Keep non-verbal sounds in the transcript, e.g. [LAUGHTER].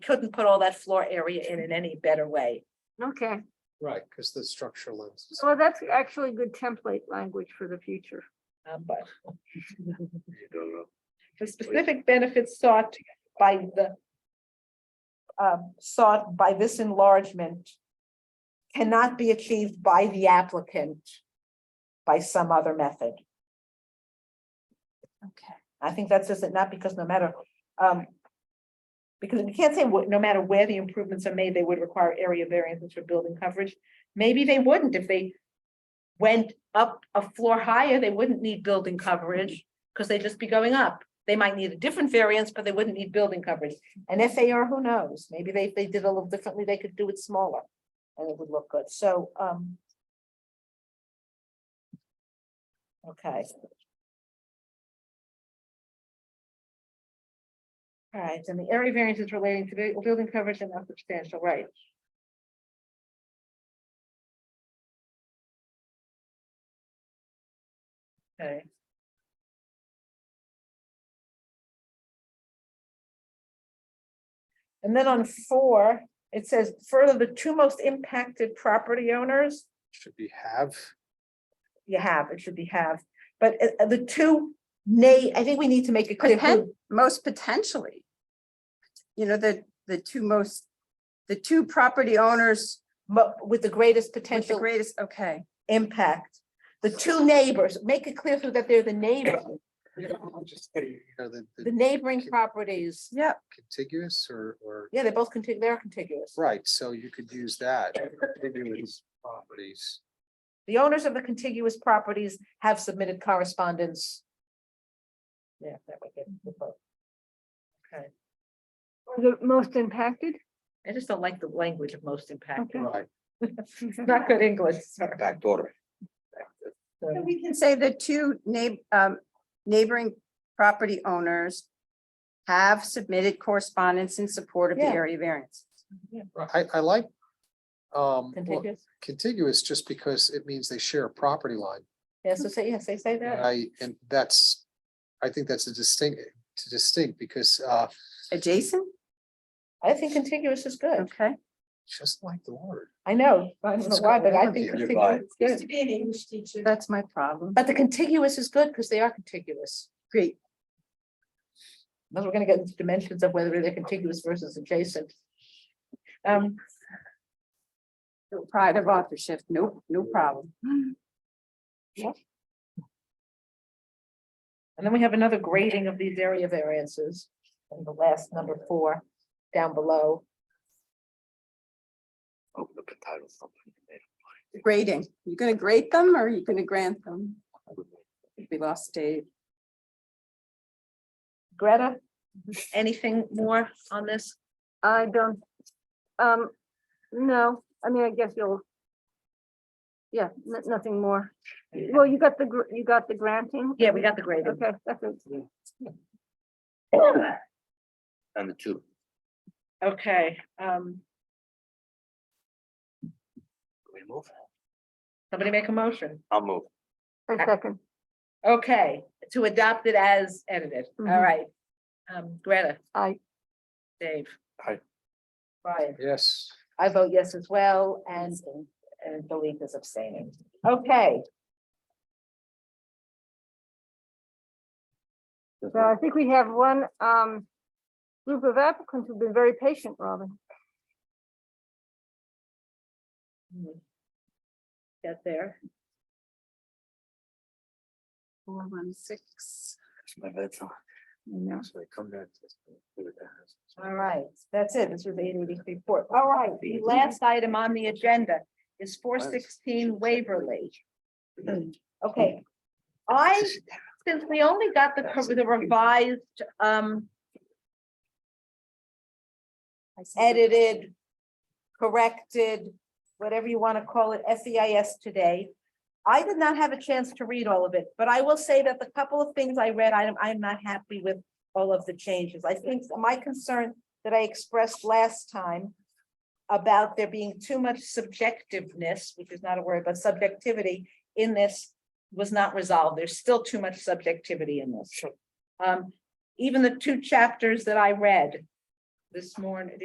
couldn't put all that floor area in in any better way. Okay, Right, because the structure lens. is- well, that's actually good template language for the future. Um, but You don't know. the specific benefits sought by the um, sought by this enlargement cannot be achieved by the applicant by some other method. Okay, I think that's just it, not because no matter, um, because we can't say what, no matter where the improvements are made, they would require area variances for building coverage. Maybe they wouldn't if they went up a floor higher, they wouldn't need building coverage because they'd just be going up. They might need a different variance, but they wouldn't need building coverage. And if they are, who knows? Maybe they, if they did a little differently, they could do it smaller and it would look good. So, um. Okay. All right, and the area variances relating to bu- building coverage and not substantial, right? Okay. And then on four, it says further, the two most impacted property owners, Should be have, you have, it should be have. But uh, uh, the two, nay, I think we need to make it clear Poten- who, most potentially. You know, the, the two most, the two property owners mo- with the greatest with the potential greatest, okay. impact. The two neighbors, make it clear who that they're the neighbor, you [LAUGHS] know, just, you know, the, the the neighboring properties. Yep, contiguous or, or, Yeah, they're both contiguous, they're contiguous. right, so you could use that. contiguous Properties. The owners of the contiguous properties have submitted correspondence. Yeah, that would get the vote. Okay, The most impacted? I just don't like the language of most impacted. Okay. Right, [LAUGHS] Not good English, sorry. Backdoor. So So, we can say the two neigh- um, neighboring property owners have submitted correspondence in support of the Yeah. area variance. I, I like um, well, Contiguous, contiguous just because it means they share a property line. yeah, so say, yes, they say that, I, and that's, I think that's a distinct, to distinct because uh, Adjacent, I think contiguous is good, okay, just like the word. I know, I don't know What's why, going but I on think here? contiguous is good. be an English teacher. That's my problem. But the contiguous is good, because they are contiguous. Great, Then we're gonna get into dimensions of whether they're contiguous versus adjacent. Um, No pride of authorship, no, no problem. and then we have another grading of these area variances, and the last number four, down below. Open up a title something. Grading, you gonna grade them or are you gonna grant them? We lost Dave. Greta, anything more on this? I don't, um, no, I mean, I guess you'll. Yeah, no- nothing more. Well, you got the, gr- you got the granting? Yeah, we got the grading. Okay, that's it. And the two. Okay, um, We move. somebody make a motion. I'll move. A second. Okay, to adopt it as edited, all Mhm. right. Um, Greta, I, Dave. Aye. Brian. Yes. I vote yes as well, and, and the league is abstaining. Okay, so I think we have one, um, group of applicants who've been very patient, Robin. get there. Four, one, six. My bedtime. No. So I come back. to- to the house. All right, that's it. This was the eight eighty report. All right, the last item on the agenda is four sixteen Waverly. Okay. I, since we only got the cor- the revised, um, edited, corrected, whatever you want to call it, SEIS today. I did not have a chance to read all of it, but I will say that the couple of things I read, I'm, I'm not happy with all of the changes. I think my concern that I expressed last time about there being too much subjectiveness, which is not a word, but subjectivity in this was not resolved. There's still too much subjectivity in this. Um, even the two chapters that I read this morning,